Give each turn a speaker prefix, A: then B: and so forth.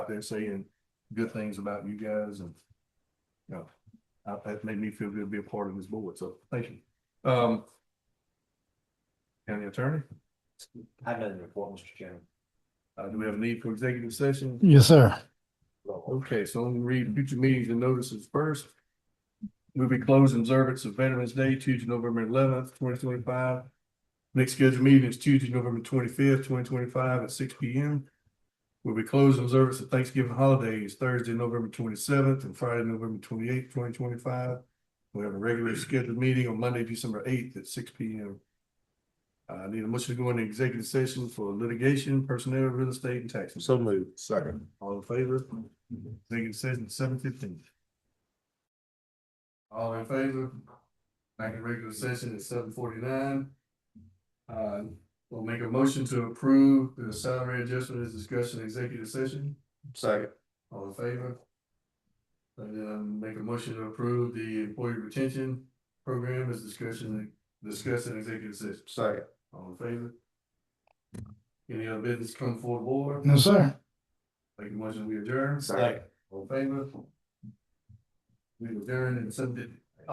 A: there saying good things about you guys and. You know, uh, that made me feel good to be a part of this board, so thank you. Um. County attorney,
B: I have nothing to report, Mr. Chairman.
A: uh, do we have a need for executive session?
C: Yes, sir.
A: Okay, so let me read future meetings and notices first. We'll be closed in observance of Veterans Day, Tuesday, November eleventh, twenty twenty-five. Next scheduled meeting is Tuesday, November twenty-fifth, twenty twenty-five at six P M. We'll be closed in observance of Thanksgiving holidays, Thursday, November twenty-seventh, and Friday, November twenty-eighth, twenty twenty-five. We have a regular scheduled meeting on Monday, December eighth at six P M. Uh, I need a motion to go into executive session for litigation, personnel, real estate, and taxes.
D: So moved. Second.
A: All in favor? Executive session seven fifteen. All in favor? Back in regular session at seven forty-nine. Uh, we'll make a motion to approve the salary adjustment as discussed in executive session.
D: Second.
A: All in favor? And then make a motion to approve the employee retention program as discussion, discussed in executive session.
D: Second.
A: All in favor? Any other business come before the board?
C: No, sir.
A: Make a motion, we adjourn.
D: Second.
A: All in favor? We adjourn and submitted.